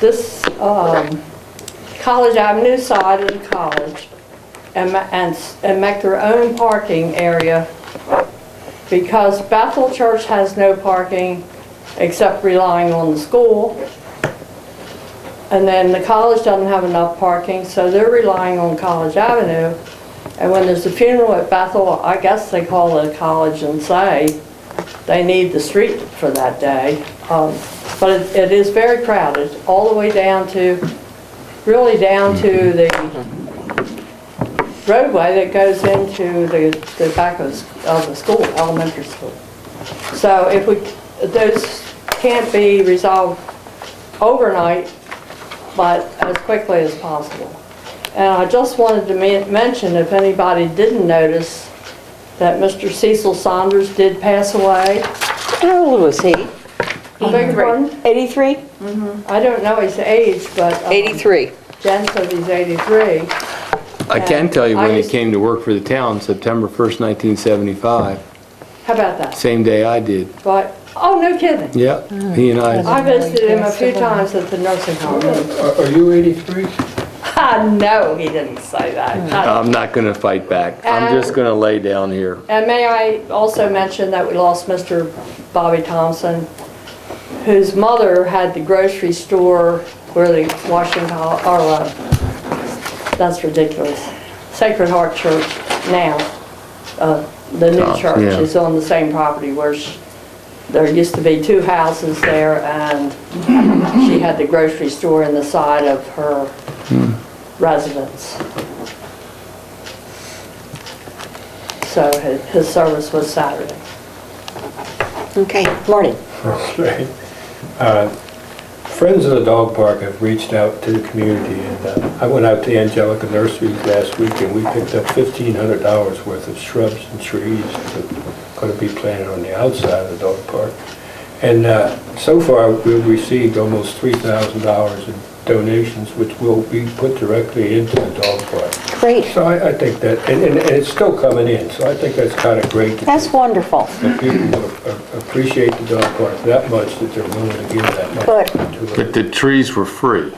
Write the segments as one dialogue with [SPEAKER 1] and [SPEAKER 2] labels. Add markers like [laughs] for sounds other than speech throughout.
[SPEAKER 1] this um, College Avenue side of the college and, ma- and s- and make their own parking area because Bethel Church has no parking except relying on the school. And then the college doesn't have enough parking, so they're relying on College Avenue. And when there's a funeral at Bethel, I guess they call the college and say they need the street for that day. Um, But it- it is very crowded, all the way down to, really down to the roadway that goes into the, the back of, s- of the school, elementary school. So if we, those can't be resolved overnight, but as quickly as possible. And I just wanted to men- mention, if anybody didn't notice, that Mr. Cecil Saunders did pass away.
[SPEAKER 2] How old was he?
[SPEAKER 1] I beg your pardon?
[SPEAKER 2] 83?
[SPEAKER 1] I don't know his age, but um,
[SPEAKER 2] 83.
[SPEAKER 1] Jen said he's 83.
[SPEAKER 3] I can tell you
[SPEAKER 1] I
[SPEAKER 3] when he
[SPEAKER 1] just-
[SPEAKER 3] came to work for the town, September 1st, 1975,
[SPEAKER 1] How about that?
[SPEAKER 3] same day I did.
[SPEAKER 1] But, oh, no kidding.
[SPEAKER 3] Yeah, he and I,
[SPEAKER 1] I visited him a few times at the nursing [laughs] home.
[SPEAKER 4] Are are you 83?
[SPEAKER 1] I know he didn't say that. I-
[SPEAKER 3] I'm not going to fight back.
[SPEAKER 2] Uh,
[SPEAKER 3] I'm
[SPEAKER 1] And-
[SPEAKER 3] just going to lay down here.
[SPEAKER 1] And may I also mention that we lost Mr. Bobby Thompson, whose mother had the grocery store where the Washington, or, uh, that's ridiculous, Sacred Heart Church now, uh, the
[SPEAKER 3] Oh,
[SPEAKER 1] new church
[SPEAKER 3] yeah.
[SPEAKER 1] is on the same property where she- there used to be two houses there, and she had the grocery store in the side of her residence. So his- his service was Saturday.
[SPEAKER 2] Okay, Marty.
[SPEAKER 4] [laughs] Right. Uh, Friends of the Dog Park have reached out to the community, and uh, I went out to Angelica Nurseries last week, and we picked up $1,500 worth of shrubs and trees that are going to be planted on the outside of the dog park. And uh, so far, we've received almost $3,000 in donations, which will be put directly into the dog park.
[SPEAKER 2] Great.
[SPEAKER 4] So I I think that, and and- and it's still coming in, so I think that's kind of great. to
[SPEAKER 2] That's
[SPEAKER 4] do.
[SPEAKER 2] wonderful.
[SPEAKER 4] The people a- a- appreciate the dog park that much that they're willing to give that
[SPEAKER 2] But-
[SPEAKER 4] much to it.
[SPEAKER 3] the trees were free.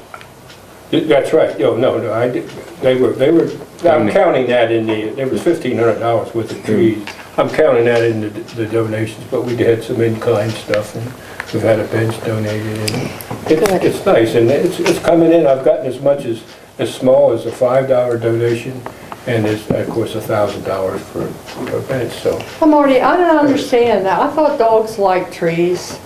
[SPEAKER 4] That's right, no, no, no, I did, they were, they were, I'm counting that in the, there was fifteen hundred dollars worth of trees. I'm counting that in the the donations, but we had some in-kind stuff, and we've had a bench donated, and
[SPEAKER 2] Good.
[SPEAKER 4] it's, it's nice, and it's, it's coming in, I've gotten as much as, as small as a five dollar donation, and it's, of course, a thousand dollars for a bench, so.
[SPEAKER 1] Well, Marty, I don't understand that. I thought dogs like trees.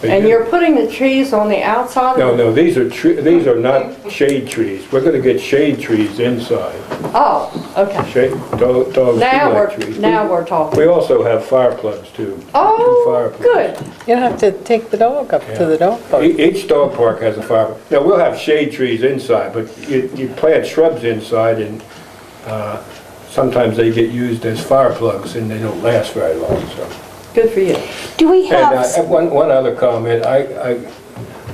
[SPEAKER 4] they
[SPEAKER 1] And
[SPEAKER 4] do.
[SPEAKER 1] you're putting the trees on the outside?
[SPEAKER 4] No,
[SPEAKER 1] of
[SPEAKER 4] no, these are, tre- these are not shade trees. We're gonna get shade trees inside.
[SPEAKER 1] Oh, okay.
[SPEAKER 4] Shade, do- dogs do
[SPEAKER 1] Now
[SPEAKER 4] like
[SPEAKER 1] we're,
[SPEAKER 4] trees.
[SPEAKER 1] now we're
[SPEAKER 4] We
[SPEAKER 1] talking.
[SPEAKER 4] also have fire plugs too. two fire
[SPEAKER 1] Oh,
[SPEAKER 4] plugs.
[SPEAKER 1] good.
[SPEAKER 5] You don't have to take the dog up to the dog park.
[SPEAKER 4] E- Each dog park has a fire, now we'll have shade trees inside, but you, you plant shrubs inside and, uh, sometimes they get used as fire plugs and they don't last very long, so.
[SPEAKER 1] Good for you.
[SPEAKER 2] Do we
[SPEAKER 4] And uh,
[SPEAKER 2] have,
[SPEAKER 4] one, one other comment, I, I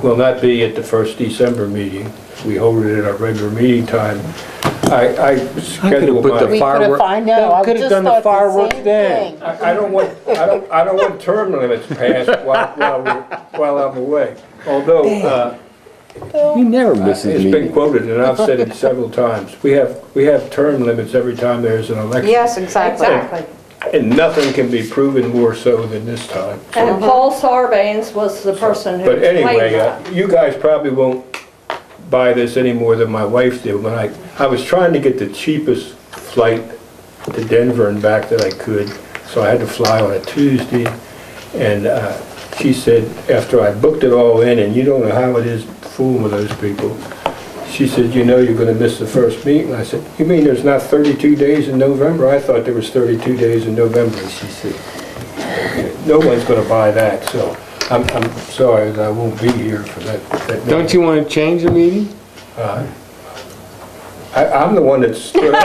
[SPEAKER 4] will not be at the first December meeting. We hold it at our regular meeting time. I, I schedule
[SPEAKER 3] put the fi-
[SPEAKER 4] my,
[SPEAKER 3] Firework-
[SPEAKER 5] I know, I
[SPEAKER 6] could've
[SPEAKER 5] just
[SPEAKER 6] done the
[SPEAKER 5] thought
[SPEAKER 6] fireworks
[SPEAKER 5] same
[SPEAKER 6] then.
[SPEAKER 5] thing.
[SPEAKER 4] I I don't want, I don't, I don't want term limits passed while, while, we're- while I'm away. Although, uh,
[SPEAKER 3] He never misses
[SPEAKER 4] it's been
[SPEAKER 3] me.
[SPEAKER 4] quoted and I've said it several times, we have, we have term limits every time there's an election.
[SPEAKER 2] Yes, exactly.
[SPEAKER 1] Exactly.
[SPEAKER 4] And nothing can be proven more so than this time.
[SPEAKER 1] And Paul Sarbanes was the person who
[SPEAKER 4] But
[SPEAKER 1] played
[SPEAKER 4] anyway, uh,
[SPEAKER 1] that.
[SPEAKER 4] you guys probably won't buy this any more than my wife did when I, I was trying to get the cheapest flight to Denver and back that I could, so I had to fly on a Tuesday. And uh, she said, after I booked it all in, and you don't know how it is fooling with those people, she said, you know, you're gonna miss the first meeting. I said, you mean there's not 32 days in November? I thought there was 32 days in November. And she said, no one's gonna buy that, so I'm, I'm sorry, that I won't be here for that. that
[SPEAKER 3] Don't you want to change the meeting?
[SPEAKER 4] I, I'm the one that's, [laughs]
[SPEAKER 3] [laughs]
[SPEAKER 4] you don't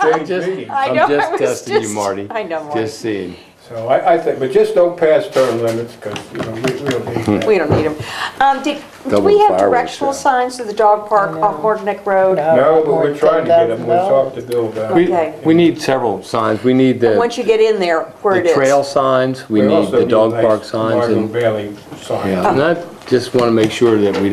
[SPEAKER 4] change meetings.
[SPEAKER 2] I
[SPEAKER 3] I'm
[SPEAKER 2] know,
[SPEAKER 3] just
[SPEAKER 2] I was
[SPEAKER 3] testing you,
[SPEAKER 2] just-
[SPEAKER 3] Marty.
[SPEAKER 2] I know, Marty.
[SPEAKER 3] Just seeing.
[SPEAKER 4] So I, I think, but just don't pass term limits, because, you know, we, we don't need that.
[SPEAKER 2] We don't need them. Um, did, do we
[SPEAKER 3] Double
[SPEAKER 2] have
[SPEAKER 3] fireworks,
[SPEAKER 2] directional
[SPEAKER 3] yeah.
[SPEAKER 2] signs to the dog park off Horton Neck Road?
[SPEAKER 4] No, but we're trying to get them, we talked to Bill about
[SPEAKER 3] We,
[SPEAKER 4] it.
[SPEAKER 2] Okay.
[SPEAKER 3] we need several signs. We need the,
[SPEAKER 2] Once you get in there, where it
[SPEAKER 3] the
[SPEAKER 2] is.
[SPEAKER 3] trail signs, we
[SPEAKER 4] We
[SPEAKER 3] need
[SPEAKER 4] also
[SPEAKER 3] the dog
[SPEAKER 4] nice
[SPEAKER 3] park signs
[SPEAKER 4] Marvin
[SPEAKER 3] and,
[SPEAKER 4] Bailey sign.
[SPEAKER 3] yeah. And I just want to make sure that we